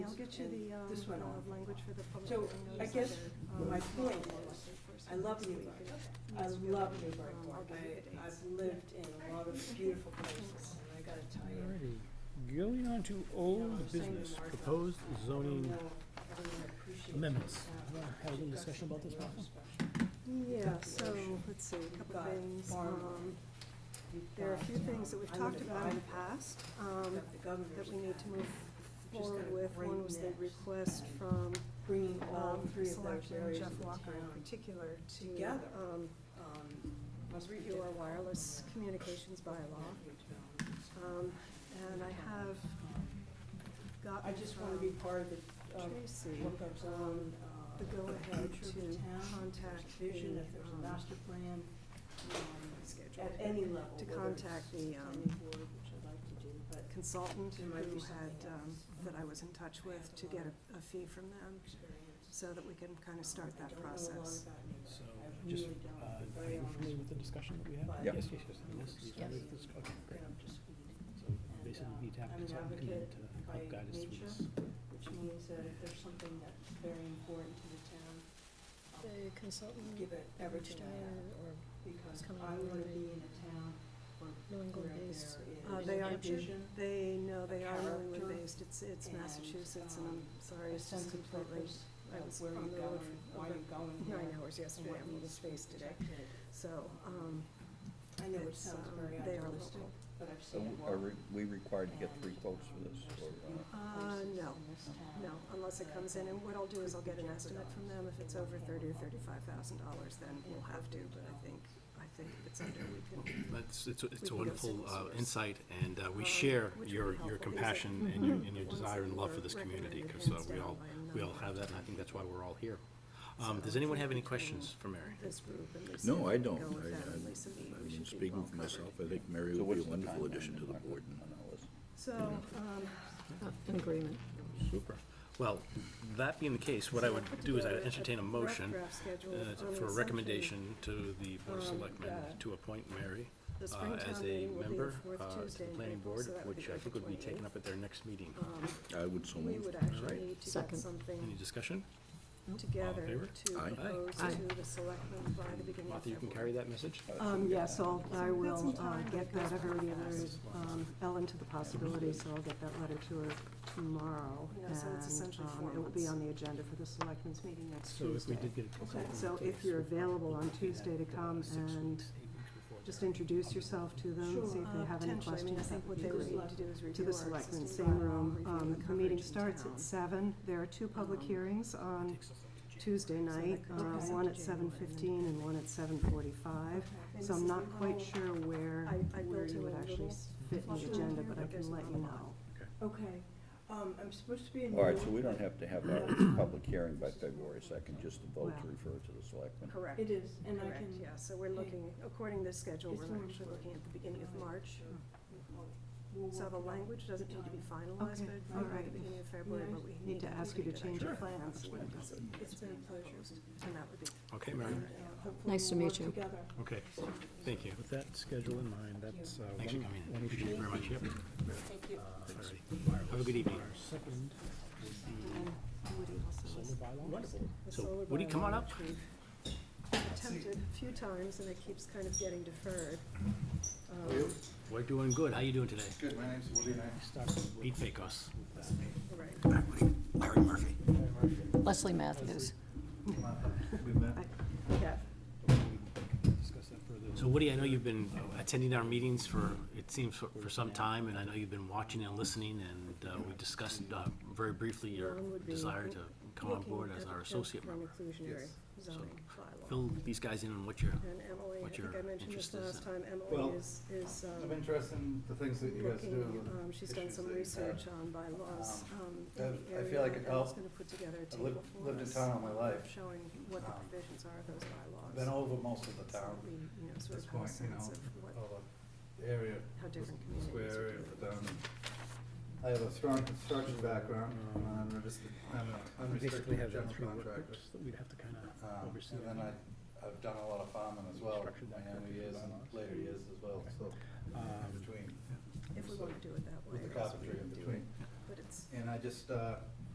I'll get you the, um, This went uh, on. language for the public. So, hearing I notice guess under, um, my point um, is, first I love so we Newburgh. can I use your- love Newburyport. um, I'll give you the I, dates. I've lived in a lot of beautiful places, and I gotta tell you. Alrighty, going on to old business, proposed zoning amendments. Wanna Have a little discussion about this, Martha? Yeah, so, let's see, a couple Got things, farm. um, there are a few things that we've talked about in the past, um, that we need to move forward with. One was the request from, Bringing all um, three of those Selectman areas Jeff of the Walker in town. particular to, together. um, um, must be review our different. wireless communications bylaw. Um, and I have gotten I just wanna from be uh, part of the, of Tracy, what goes on, um, uh, the go-ahead future of the to town, contact the, there's vision, if there's a um, master plan, um, schedule. at any level. to whether contact it's the, um, planning board, which I'd like to do, but consultant There might who be something had, um, else. that I was in touch with to get a, a fee from them, experience. so that we can kind of start I that don't know a lot process. about Newburgh. So, I just, really don't. uh, I'm are very you honest familiar with with the you. discussion that we had? But- Yes, yes, yes, I mean, this is- Yes. this- okay, Get great. up to speed. So And, basically, uh, we need to have a I'm an consultant come in advocate to by help guide us through nature. this. which means that if there's something that's very important to the town, I'll The consultant give it averaged everything I have, out or because it's coming I out wanna of be in a town where New where England there based. is Uh, Is they it are, Hampshire? vision, they, no, they are New Character England based, it's, it's and, Massachusetts, and um, I'm sorry, a it's just sense of completely, purpose, I of was where on you're the road going, for why over you're going there. nine hours and yesterday, what I'm in needs to be space today, protected. so, um, I know it it's, sounds um, very they are idealistic, local. but I've So seen it w- work. are we- we required to get three And, quotes for um, this, there's or, some uh, Uh, places no, in this town no, unless it that I comes in, think and what I'll do is I'll could get be an estimate from them, if it's over jeopardized thirty or if they thirty-five thousand dollars, then we'll have to, but I think, I think if it's under, we can, That's, it's, a- We can it's a go wonderful single uh, source. insight, and uh, we Um, share which would be your, helpful your because it- compassion and your, and your Ones that desire and love were for this community, recommended because hands we down all, by a we all number. have that, and I think that's why we're all here. Um, So Does I anyone think have any between questions for Mary? this group and Lisa. No, I can don't. Go with I, that, and I- Lisa B, I we mean, should be well speaking for myself, covered. I think Mary so would be what's a the wonderful timeline addition to the on- board. on all this? So, um, in agreement. Super. Well, that being the case, what I would do is I'd entertain a motion rough draft schedule uh, on the for a assumption recommendation to the Board of Um, Selectmen yeah. to appoint Mary The uh, spring town as a meeting will be the member fourth uh, to Tuesday the in planning April, board, so that would be which I think April would be 28th. taken up at their next meeting. um, I would so we move. would Alright. actually need to get Second. Any something discussion? together favor? to Aye. propose Aye. to the selectmen by the beginning of Martha, you can February. carry that message? Uh, Um, yes, I'll, I got will some uh, time, get but that, I've already alerted um, Ellen to the possibility, so I'll get that letter to her tomorrow. Yeah, so it's essentially and, um, four It will be months. on the agenda for the selectmen's meeting next So if we Tuesday. did get a consultant. So to if you're us, available on we'd do that Tuesday to for come six weeks, and eight weeks before just that. introduce yourself to them, see if Uh, they have any potentially, I mean, I questions, that think would what be they would great. like to do is To review the our selectmen, existing same room, bylaw, um, review the the meeting coverage in starts town. at seven, there are two public Um, hearings on Takes us up to June. Tuesday So that night, could uh, take us up one to at January, seven and then- fifteen and one at seven forty-five. Okay. So I'm not quite Okay. sure where, I- I where built you in would a actually little s- fit in the flush agenda, down but here, I but there's can let not you a lot. know. Okay, um, I'm supposed to be in. All right, so Newark. we don't have to have a public hearing by February second, just a vote to Well. refer it to the selectmen. Correct. It is, and I Correct, can. yeah, so we're looking, according to this schedule, It's we're more actually looking at the beginning of important. March. We'll- we'll So work the it out. language doesn't need to be finalized, Okay, but all by the right. beginning of February, but we need to ask you to change your plans when it doesn't. It's been a pleasure. And that would be Okay, Mary? And, uh, hopefully Nice to we'll meet work you. together. Okay, thank you. With that schedule in mind, that's uh, Thanks for one, coming in. one Uh, issue. Appreciate it very much. Yep. Thank you. Alrighty. Have a good evening. Our second would Woody be also was solar bylaw. Wonderful. the So, solar Woody, come on bylaw, up. which we've Attempted a few times and it keeps kind of getting deferred. Um, We're doing good. How you doing today? Good, my name's Woody and I Start with- Pete Pecos. Right. Larry Murphy. Leslie Matthews. Yeah. We'll Discuss that further. So Woody, I know you've been attending our meetings for, it seems, for for some time, and I know you've been watching and listening, and uh, we discussed uh, very briefly your One would be desire to come on Looking board at as the our fifth associate and member. Inclusionary So, zoning bylaw. Fill these guys in on what you're, And Emily, I what think your I mentioned this interest is last in. time, Well, Emily is, is, um, I'm interested in the things that you guys do. looking, and um, she's done issues some that you have. research on bylaws, um, I- in the I area. feel like it and helped. gonna put together a I've lived- table for lived in us, town all my um, life. Showing what the Um, provisions are of those I've bylaws. Been over most of the so town that we, you know, at sort this of have a point, you sense know, of what, all the area, how the different communities square are area doing. of the town. I have a strong construction background, I'm an unregistered, I'm an We basically unrestricted have general that three work contractor. groups that we'd have to kind of Um, oversee. And then I, I've done a lot of farming as well, Structured that my younger correctly for years and bylaws. later years as well, so, Um, in between, If we wanna do it that way. with the that's what carpentry we in do. between. But it's, And I just, uh,